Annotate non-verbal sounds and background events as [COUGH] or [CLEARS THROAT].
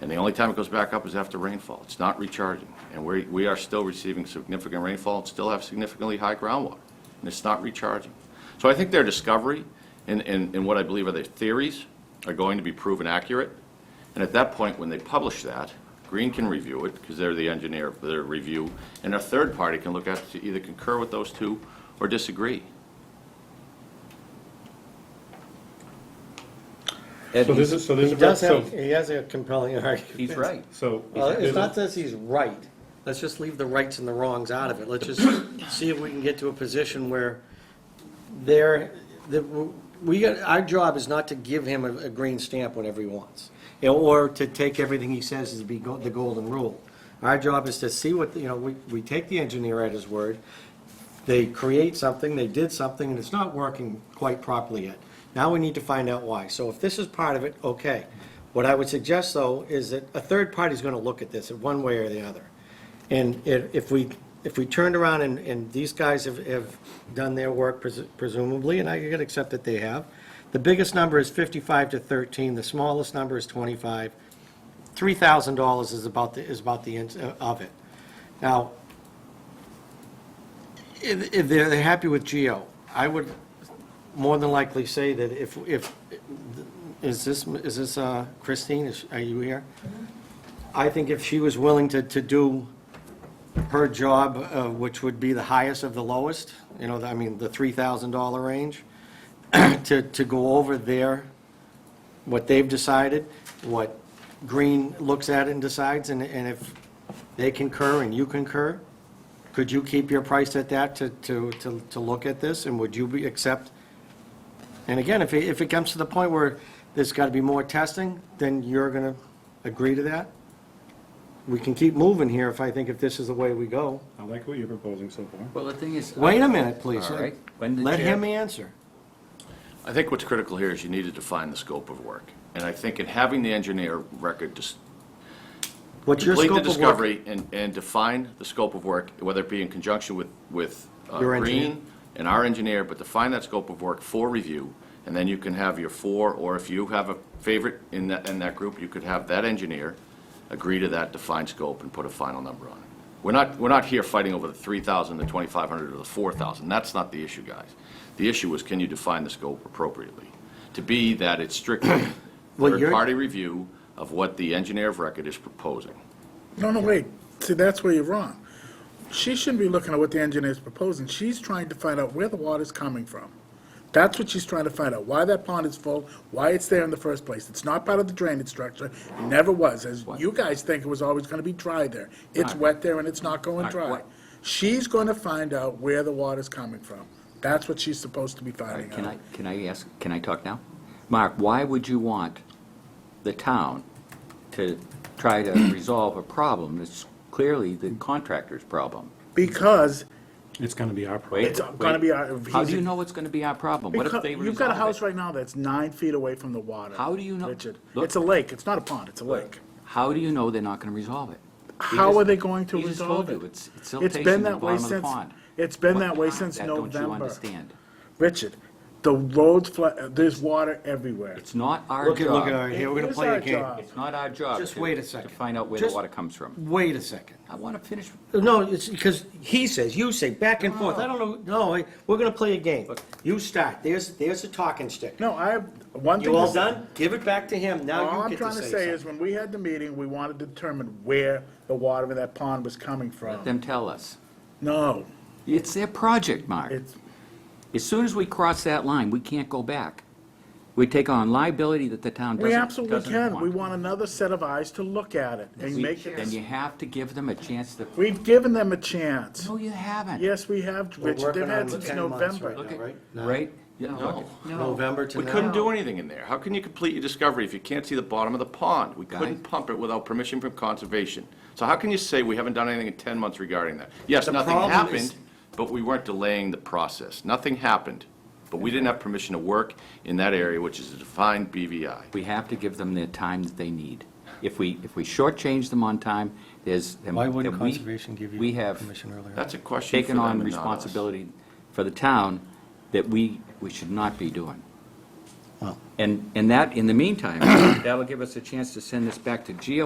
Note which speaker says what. Speaker 1: And the only time it goes back up is after rainfall. It's not recharging. And we, we are still receiving significant rainfall and still have significantly high groundwater. And it's not recharging. So I think their discovery and, and, and what I believe are their theories are going to be proven accurate. And at that point, when they publish that, Green can review it because they're the engineer for their review. And a third party can look at it to either concur with those two or disagree.
Speaker 2: And
Speaker 3: So
Speaker 2: he's-
Speaker 3: this is, so this
Speaker 4: He
Speaker 3: is,
Speaker 4: does
Speaker 3: so,
Speaker 4: have, he has a compelling argument.
Speaker 2: He's right.
Speaker 3: so.
Speaker 4: Well, it's
Speaker 3: there's a-
Speaker 4: not that he's right. Let's just leave the rights and the wrongs out of it. Let's just see if we can get to a position where there, that w- we, got our job is not to give him a, a green stamp whenever he wants, you know, or to take everything he says as be go- the golden rule. Our job is to see what, you know, we, we take the engineer at his word, they create something, they did something, and it's not working quite properly yet. Now we need to find out why. So if this is part of it, okay. What I would suggest, though, is that a third party's gonna look at this in one way or the other. And if, if we, if we turned around and, and these guys have, have done their work presu- presumably, and I could accept that they have, the biggest number is fifty-five to thirteen, the smallest number is twenty-five. Three thousand dollars is about, the is about the end of it. Now, if, if they're, they're happy with Geo, I would more than likely say that if, if, is this, is this uh, Christine, is, are you here? I think if she was willing to, to do her job, uh, which would be the highest of the lowest, you know, I mean, the three thousand dollar range, [CLEARS THROAT] to, to go over their, what they've decided, what Green looks at and decides, and, and if they concur and you concur, could you keep your price at that to, to, to, to look at this, and would you be, accept? And again, if it, if it comes to the point where there's gotta be more testing, then you're gonna agree to that? We can keep moving here if I think if this is the way we go.
Speaker 3: I like what you're proposing so far.
Speaker 2: Well, the thing is.
Speaker 4: Wait a minute, please.
Speaker 2: All right. When the
Speaker 4: Let
Speaker 2: chair-
Speaker 4: him answer.
Speaker 1: I think what's critical here is you need to define the scope of work. And I think in having the engineer record just
Speaker 4: What's your
Speaker 1: complete
Speaker 4: scope
Speaker 1: the
Speaker 4: of work?
Speaker 1: discovery and, and define the scope of work, whether it be in conjunction with, with uh,
Speaker 4: Your engineer.
Speaker 1: Green and our engineer, but define that scope of work for review, and then you can have your four, or if you have a favorite in that, in that group, you could have that engineer agree to that defined scope and put a final number on it. We're not, we're not here fighting over the three thousand, the twenty-five hundred, or the four thousand. That's not the issue, guys. The issue is, can you define the scope appropriately? To be that it's strictly
Speaker 4: Well, you're-
Speaker 1: third-party review of what the engineer of record is proposing.
Speaker 5: No, no, wait. See, that's where you're wrong. She shouldn't be looking at what the engineer's proposing. She's trying to find out where the water's coming from. That's what she's trying to find out, why that pond is full, why it's there in the first place. It's not part of the drainage structure. It never was, as you guys think it was always gonna be dry there. It's wet there and it's not going dry. She's gonna find out where the water's coming from. That's what she's supposed to be finding
Speaker 2: uh, Can I,
Speaker 5: out.
Speaker 2: can I ask, can I talk now? Mark, why would you want the town to try to resolve a problem that's clearly the contractor's problem?
Speaker 5: Because
Speaker 3: It's gonna be our problem.
Speaker 2: Wait,
Speaker 5: It's gonna
Speaker 2: wait.
Speaker 5: be our-
Speaker 2: How do you know it's gonna be our problem? What if
Speaker 5: Because-
Speaker 2: they
Speaker 5: You've got a
Speaker 2: resolve
Speaker 5: house
Speaker 2: it?
Speaker 5: right now that's nine feet away from the water.
Speaker 2: How do you know-
Speaker 5: Richard,
Speaker 2: Look-
Speaker 5: it's a lake, it's not a pond, it's a lake.
Speaker 2: How do you know they're not gonna resolve it? He
Speaker 5: How
Speaker 2: just-
Speaker 5: are they going to
Speaker 2: he just
Speaker 5: resolve
Speaker 2: told you,
Speaker 5: it?
Speaker 2: It's, it's still
Speaker 5: It's
Speaker 2: tasting
Speaker 5: been
Speaker 2: in the
Speaker 5: that way
Speaker 2: bottom of the
Speaker 5: since-
Speaker 2: pond.
Speaker 5: it's been
Speaker 2: What
Speaker 5: that way
Speaker 2: pond?
Speaker 5: since
Speaker 2: That Don't you
Speaker 5: November.
Speaker 2: understand?
Speaker 5: Richard, the roads, fla- uh, there's water everywhere.
Speaker 2: It's not our
Speaker 4: Look at, look at,
Speaker 2: job.
Speaker 4: our- here, we're
Speaker 5: It
Speaker 4: gonna
Speaker 5: is
Speaker 4: play
Speaker 5: our
Speaker 4: a game.
Speaker 5: job.
Speaker 2: It's not our job.
Speaker 4: Just
Speaker 2: to-
Speaker 4: wait a second.
Speaker 2: To find out where the
Speaker 4: Just-
Speaker 2: water comes from.
Speaker 4: Wait a second.
Speaker 2: I wanna finish,
Speaker 4: No, it's because he says, you say, back and forth. I don't know, no, I- we're gonna play a game. You start. There's, there's a talking stick.
Speaker 5: No, I, have one thing.
Speaker 4: You all
Speaker 5: to-
Speaker 4: done? Give it back to him.
Speaker 5: All
Speaker 4: Now
Speaker 5: I'm
Speaker 4: you get
Speaker 5: trying to say is, when we had the meeting, we wanted to determine where the water in that pond was coming
Speaker 2: let
Speaker 5: from.
Speaker 2: them tell us.
Speaker 5: No,
Speaker 2: It's their project, Mark.
Speaker 5: it's,
Speaker 2: As soon as we cross that line, we can't go back. We take on liability that the town
Speaker 5: we
Speaker 2: doesn't,
Speaker 5: absolutely
Speaker 2: doesn't
Speaker 5: can.
Speaker 2: want.
Speaker 5: We want another set of eyes to look at it and
Speaker 2: We-
Speaker 5: make
Speaker 2: Then you
Speaker 5: it.
Speaker 2: have to give them a chance to,
Speaker 5: We've given them a chance.
Speaker 2: no, you haven't.
Speaker 5: Yes, we have, Richard. They've had since November.
Speaker 2: Look at- Right? Yeah, look at-
Speaker 4: November to
Speaker 1: We
Speaker 4: now.
Speaker 1: couldn't do anything in there. How can you complete your discovery if you can't see the bottom of the pond? We couldn't
Speaker 2: Guys.
Speaker 1: pump it without permission from conservation. So how can you say we haven't done anything in 10 months regarding that? Yes,
Speaker 4: The
Speaker 1: nothing
Speaker 4: problem is-
Speaker 1: happened, but we weren't delaying the process. Nothing happened, but we didn't have permission to work in that area, which is a defined BVI.
Speaker 2: We have to give them the time that they need. If we, if we shortchange them on time, there's. then-
Speaker 4: Why wouldn't
Speaker 2: then we-
Speaker 4: conservation give you
Speaker 2: We have
Speaker 4: permission earlier?
Speaker 1: That's a question for
Speaker 2: taken
Speaker 1: them
Speaker 2: on
Speaker 1: and not us.
Speaker 2: responsibility for the town that we, we should not be doing.
Speaker 4: Well-
Speaker 2: And, and that, in the meantime, that'll give us a chance to send this back to Geo